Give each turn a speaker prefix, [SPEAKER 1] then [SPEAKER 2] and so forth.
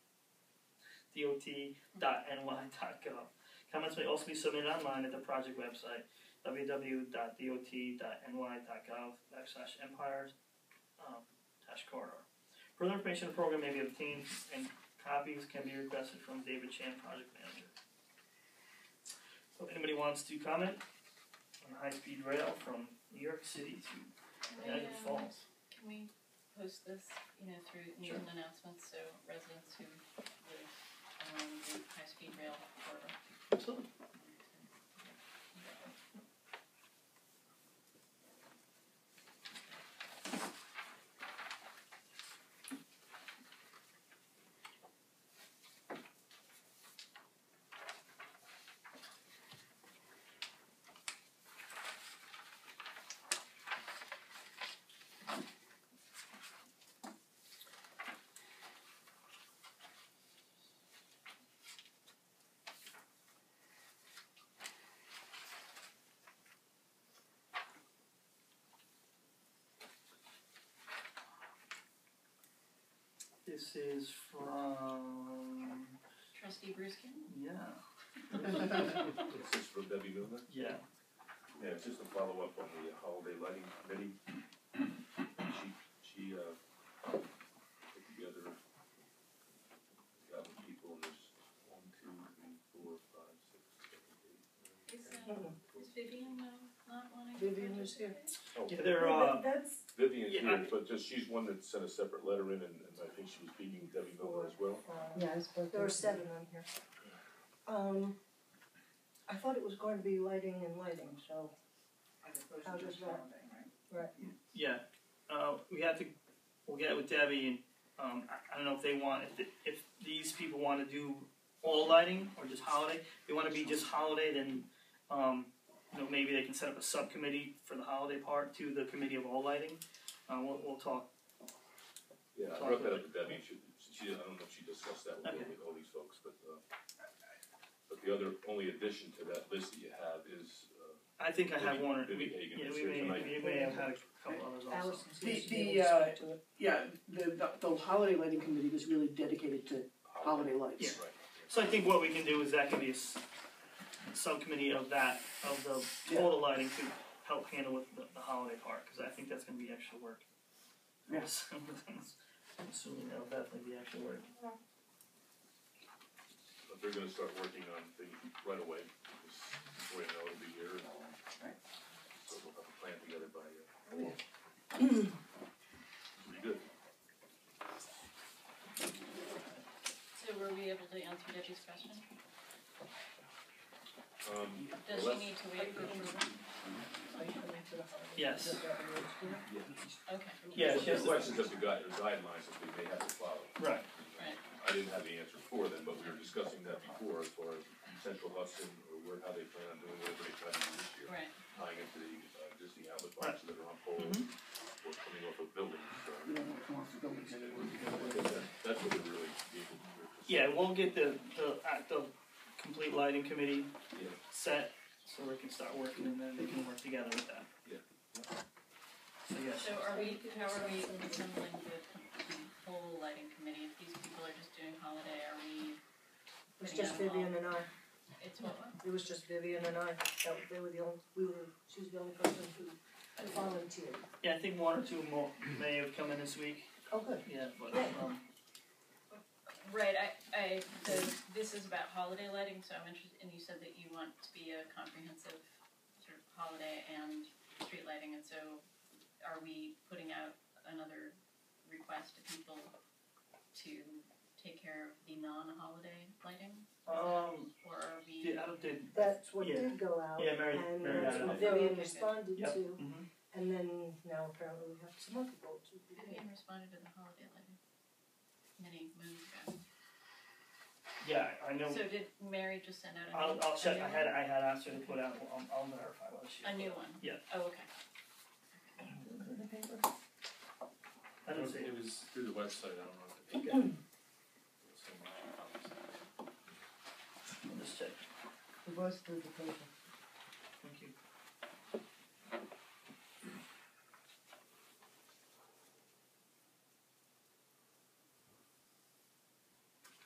[SPEAKER 1] dot.ny.gov. Comments may also be submitted online at the project website, www.dot.ny.gov backslash empires um, dash corridor. Further information on the program may be obtained and copies can be requested from David Chan, project manager. So if anybody wants to comment on high-speed rail from New York City to
[SPEAKER 2] Can we,
[SPEAKER 1] Niagara
[SPEAKER 2] um,
[SPEAKER 1] Falls.
[SPEAKER 2] Can we post this, you know, through news
[SPEAKER 1] Sure.
[SPEAKER 2] and announcements, so residents who live on the high-speed rail corridor?
[SPEAKER 1] Absolutely. This is from
[SPEAKER 2] Trustee Bruskin?
[SPEAKER 1] yeah.
[SPEAKER 3] This is from Debbie Newman.
[SPEAKER 1] yeah.
[SPEAKER 3] Yeah, it's just a follow-up on the holiday lighting committee. She, she, uh, put together, got the people, and there's one, two, three, four, five, six, seven, eight,
[SPEAKER 2] Is,
[SPEAKER 3] nine,
[SPEAKER 2] uh, is Vivian uh, not wanting to
[SPEAKER 4] Vivian is here.
[SPEAKER 2] participate?
[SPEAKER 3] ten. Oh,
[SPEAKER 1] Yeah, they're uh,
[SPEAKER 4] That's,
[SPEAKER 3] Vivian's
[SPEAKER 1] Yeah,
[SPEAKER 3] here, but just, she's one that sent a separate letter in, and, and I think she was beating Debbie Miller as well.
[SPEAKER 5] Yeah, I spoke.
[SPEAKER 4] there are seven on here. Um, I thought it was going to be lighting and lighting, so. How does that?
[SPEAKER 1] yeah. Uh, we have to. We'll get with Debbie and um, I, I don't know if they want if, the- if these people want to do all lighting or just holiday. If they want to be just holiday, then um, you know maybe they can set up a subcommittee for the holiday part to the committee of all lighting. Uh, we'll, we'll talk.
[SPEAKER 3] Yeah, I
[SPEAKER 1] Talk
[SPEAKER 3] brought
[SPEAKER 1] to
[SPEAKER 3] that up with Debbie, she, she, I don't know if she discussed that with,
[SPEAKER 1] Okay.
[SPEAKER 3] with all these folks, but, uh, but the other, only addition to that list that you have is, uh,
[SPEAKER 1] I think I have one. Or,
[SPEAKER 3] Vivi
[SPEAKER 1] we,
[SPEAKER 3] Hagen
[SPEAKER 1] yeah,
[SPEAKER 3] is
[SPEAKER 1] we
[SPEAKER 3] here
[SPEAKER 1] may,
[SPEAKER 3] tonight.
[SPEAKER 1] we may have had a couple others also.
[SPEAKER 4] Allison's
[SPEAKER 6] The-
[SPEAKER 4] used to be
[SPEAKER 6] the,
[SPEAKER 4] able to
[SPEAKER 6] uh,
[SPEAKER 4] speak to it.
[SPEAKER 6] Yeah, the, the, the holiday lighting committee was really dedicated to holiday lights.
[SPEAKER 1] Yeah.
[SPEAKER 3] Right.
[SPEAKER 1] So I think what we can do is that can be a s- subcommittee of that, of the total lighting to help handle with the, the holiday part, cause I think that's gonna be extra work. Yes. I'm assuming that'll definitely be extra work.
[SPEAKER 3] But they're gonna start working on things right away, because we're gonna know it'll be here, and so we'll have a plan together by, uh, pretty good.
[SPEAKER 2] So were we able to answer Debbie's question?
[SPEAKER 3] Um,
[SPEAKER 2] Does she
[SPEAKER 3] Well,
[SPEAKER 2] need to wait for approval?
[SPEAKER 1] Yes,
[SPEAKER 2] Okay,
[SPEAKER 1] Yeah, she has
[SPEAKER 3] the
[SPEAKER 1] to-
[SPEAKER 3] questions of the guide, or guidelines that they may have to follow.
[SPEAKER 1] right,
[SPEAKER 2] Right.
[SPEAKER 3] I didn't have the answer for them, but we were discussing that before, as far as central Hudson, or where, how they plan on doing whatever they plan to do this year.
[SPEAKER 2] right.
[SPEAKER 3] Tying into the uh, existing outlet boxes that are on poles, or coming off of buildings, so.
[SPEAKER 6] You don't want to come off the buildings
[SPEAKER 3] I
[SPEAKER 6] anymore.
[SPEAKER 3] think that- That's what we're really, able to-
[SPEAKER 1] yeah, we'll get the, the, uh, the complete lighting committee
[SPEAKER 3] Yeah.
[SPEAKER 1] set, so we can start working and then we can work together with that.
[SPEAKER 3] Yeah.
[SPEAKER 1] So yes,
[SPEAKER 2] So are we, how are we assembling the com- the whole lighting committee? If these people are just doing holiday, are we,
[SPEAKER 4] It was just Vivian and I,
[SPEAKER 2] it's what,
[SPEAKER 4] it was just Vivian and I, that, they were the only, we were, she was the only person who volunteered.
[SPEAKER 1] yeah, I think one or two more may have come in this week,
[SPEAKER 4] Oh, good.
[SPEAKER 1] yeah, but, um,
[SPEAKER 2] Right, I, I, the, this is about holiday lighting, so I'm interested, and you said that you want to be a comprehensive sort of holiday and street lighting, and so are we putting out another request to people to take care of the non-holiday lighting,
[SPEAKER 1] um,
[SPEAKER 2] or are we?
[SPEAKER 1] did, I don't, did,
[SPEAKER 4] That's what
[SPEAKER 1] Yeah.
[SPEAKER 4] did go out.
[SPEAKER 1] Yeah, Mary-
[SPEAKER 4] And
[SPEAKER 1] Mary
[SPEAKER 4] that's
[SPEAKER 1] had
[SPEAKER 4] what
[SPEAKER 2] it out.
[SPEAKER 4] Vivian
[SPEAKER 2] Okay.
[SPEAKER 4] responded
[SPEAKER 1] Yep.
[SPEAKER 4] to,
[SPEAKER 1] mhm.
[SPEAKER 4] and then now apparently we have some other people to do.
[SPEAKER 2] Vivian responded to the holiday lighting many moons ago.
[SPEAKER 1] Yeah, I know.
[SPEAKER 2] So did Mary just send out a
[SPEAKER 1] I'll,
[SPEAKER 2] new?
[SPEAKER 1] I'll
[SPEAKER 2] a
[SPEAKER 1] check.
[SPEAKER 2] new
[SPEAKER 1] I
[SPEAKER 2] one?
[SPEAKER 1] had I had asked her to put out. I'll, I'll verify what she.
[SPEAKER 2] A new one?
[SPEAKER 1] Yeah.
[SPEAKER 2] Oh, okay.
[SPEAKER 1] I don't see it.
[SPEAKER 7] It was through the website, I don't know if it. So much.
[SPEAKER 1] I'll just check.
[SPEAKER 5] It was through the paper.